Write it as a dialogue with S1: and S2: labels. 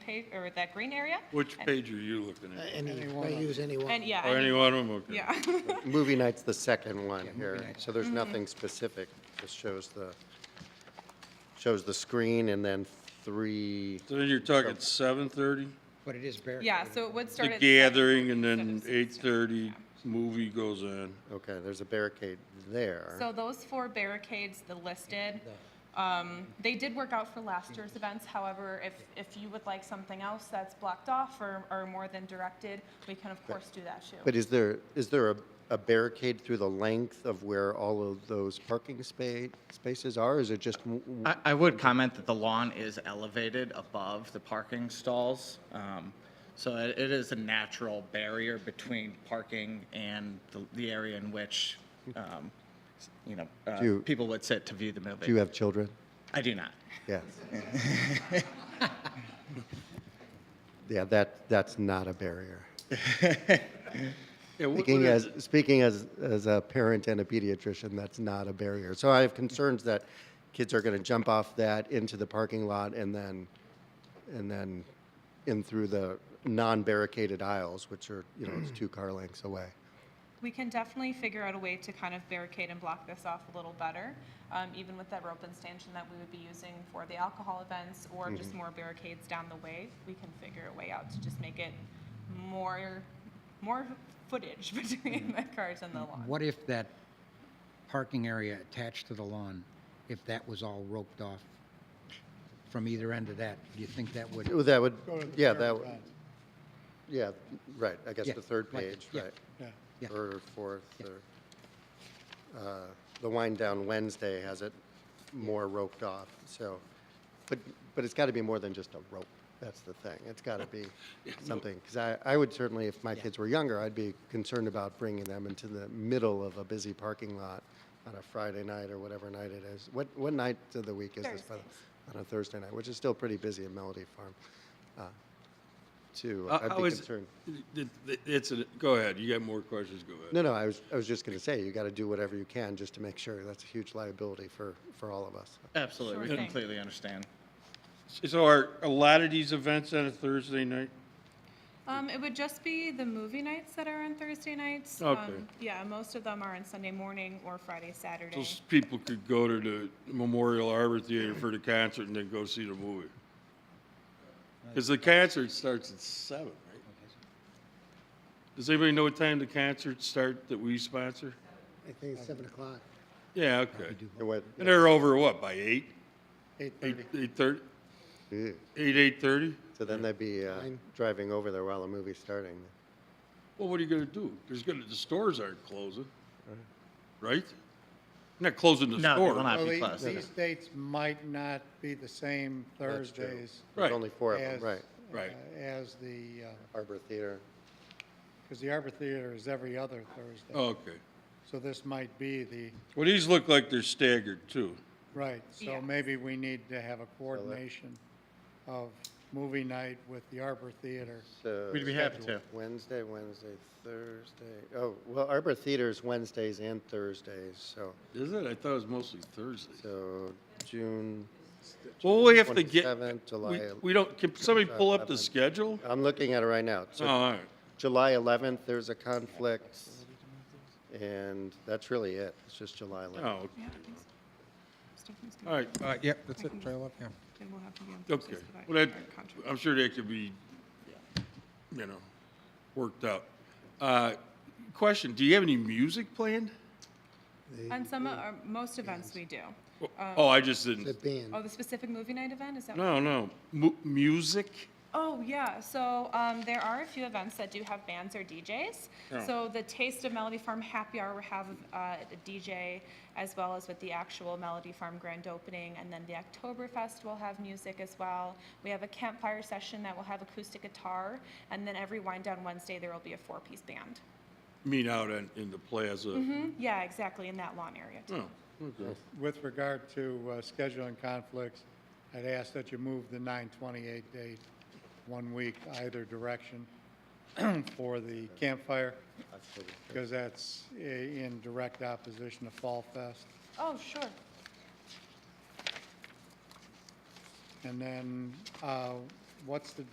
S1: page, or that green area.
S2: Which page are you looking at?
S3: Any, I use any one.
S1: And yeah.
S2: Oh,
S1: and-
S2: any one of them, okay.
S1: Yeah.
S4: Movie night's the second one here, so there's nothing specific. Just shows the, shows the screen and then three,
S2: So then you're talking 7:30,
S3: But it is barricaded.
S1: Yeah, so it would
S2: the
S1: start at.
S2: gathering, and
S1: instead
S2: then
S1: of
S2: 8:30, movie goes on.
S4: okay, there's a barricade there.
S1: So those four barricades, the listed, um, they did work out for last year's events. However, if, if you would like something else that's blocked off or, or more than directed, we can of course do that too.
S4: But is there, is there a- a barricade through the length of where all of those parking spa- spaces are? Is it just, w- w-
S5: I, I would comment that the lawn is elevated above the parking stalls. um, So it it is a natural barrier between parking and the, the area in which, um, you know, uh,
S4: Do you-
S5: people would sit to view the movie.
S4: do you have children?
S5: I do not.
S4: Yes. Yeah, that, that's not a barrier.
S2: Yeah, what-
S4: Speaking
S2: what is
S4: as, speaking as, as a parent and a pediatrician, that's not a barrier. So I have concerns that kids are going to jump off that into the parking lot and then, and then in through the non-barricaded aisles, which are, you know, it's two car lengths away.
S1: We can definitely figure out a way to kind of barricade and block this off a little better, um, even with that rope and stanchion that we would be using for the alcohol events
S2: Mm-hmm.
S1: or just more barricades down the way. We can figure a way out to just make it more, more footage between the cars and the
S2: Mm-hmm.
S1: lawn.
S6: What if that parking area attached to the lawn, if that was all roped off from either end of that, do you think that would?
S4: Well, That would, yeah, that, would- yeah, right, I guess
S6: Yeah,
S4: the third
S6: like-
S4: page,
S6: yeah,
S4: right?
S6: yeah.
S4: Third or fourth, or, uh, the wind down Wednesday has it more roped off, so. But, but it's gotta be more than just a rope, that's the thing, it's gotta be something. Because I, I would certainly, if my kids were younger, I'd be concerned about bringing them into the middle of a busy parking lot on a Friday night or whatever night it is. What, what night of the week is this? by the-
S1: Thursdays.
S4: on a Thursday night, which is still pretty busy at Melody Farm, uh, too.
S2: How-
S4: I'd
S2: how
S4: be
S2: is-
S4: concerned.
S2: it- it- It's, a- go ahead, you got more questions, go ahead.
S4: No, no, I was, I was just going to say, you got to do whatever you can just to make sure. That's a huge liability for, for all of us.
S5: Absolutely,
S1: Sure
S5: we
S1: thing.
S5: completely understand.
S2: So are a lot of these events on a Thursday night?
S1: Um, it would just be the movie nights that are on Thursday nights.
S2: Okay.
S1: Um, Yeah, most of them are on Sunday morning or Friday, Saturday.
S2: Those people could go to the Memorial Arbor Theater for the concert and then go see the movie. Because the concert starts at seven, right? Does anybody know what time the concerts start that we sponsor?
S3: I think it's seven o'clock.
S2: Yeah, okay.
S4: It went-
S2: And they're over what, by eight?
S4: Eight
S2: Eight, eight thirty?
S4: Ew.
S2: Eight, eight thirty?
S4: So then they'd be uh, driving over there while the movie's starting.
S2: Well, what are you gonna do? There's gonna, the stores aren't closing, right? Not closing the
S5: No, they
S2: store.
S5: will not
S7: Well,
S5: be
S7: the-
S5: closed.
S7: These dates might not be the same
S4: That's true.
S7: Thursdays.
S2: Right.
S4: There's only four of them,
S7: as-
S4: right.
S2: Right.
S7: uh, As the,
S4: Arbor Theater.
S7: because the Arbor Theater is every other Thursday.
S2: Oh, Okay.
S7: So this might be the,
S2: Well, these look like they're staggered too.
S7: right,
S1: Yeah.
S7: so maybe we need to have a coordination of movie night with the Arbor Theater.
S4: So
S5: We'd be happy to.
S4: Wednesday, Wednesday, Thursday. Oh, well, Arbor Theater's Wednesdays and Thursdays, so,
S2: Is it? I thought it was mostly Thursdays.
S4: so June,
S2: Well, we have to get,
S4: 27th,
S2: we,
S4: July.
S2: we don't, can somebody pull up the
S4: 11th.
S2: schedule?
S4: I'm looking at it right now.
S2: Oh,
S4: So
S2: all right.
S4: July 11th, there's a conflict, and that's really it. It's just July 11th.
S2: Oh, okay.
S1: Yeah, I think so. Stephanie's
S2: all
S1: gonna-
S2: right, all right,
S6: Yep, that's it, trail up, yeah.
S1: then we'll have to be on
S2: Uh, okay.
S1: Thursdays for that
S2: Well, that,
S1: current contract.
S2: I'm sure that could be, you know, worked out. Uh, question, do you have any music planned? Uh,
S1: On some, of our- most events we do.
S2: Oh, I just
S3: The
S2: didn't,
S3: band.
S1: Oh, the specific movie night event, is that?
S2: no, no, mu- music?
S1: Oh, yeah, so, um, there are a few events that do have bands or DJs.
S2: Yeah.
S1: So the Taste of Melody Farm Happy Hour will have, uh, a DJ as well as with the actual Melody Farm grand opening. And then the Oktoberfest will have music as well. We have a campfire session that will have acoustic guitar. And then every wind down Wednesday, there will be a four-piece band.
S2: Mean out in, in the plaza?
S1: Hmm, Yeah, exactly, in that lawn area too.
S2: Oh, okay.
S7: With regard to uh, scheduling conflicts, I'd ask that you move the 9/28 date one week either direction for the campfire, because that's i- in direct opposition to Fall Fest.
S1: Oh, sure.
S7: And then, uh, what's the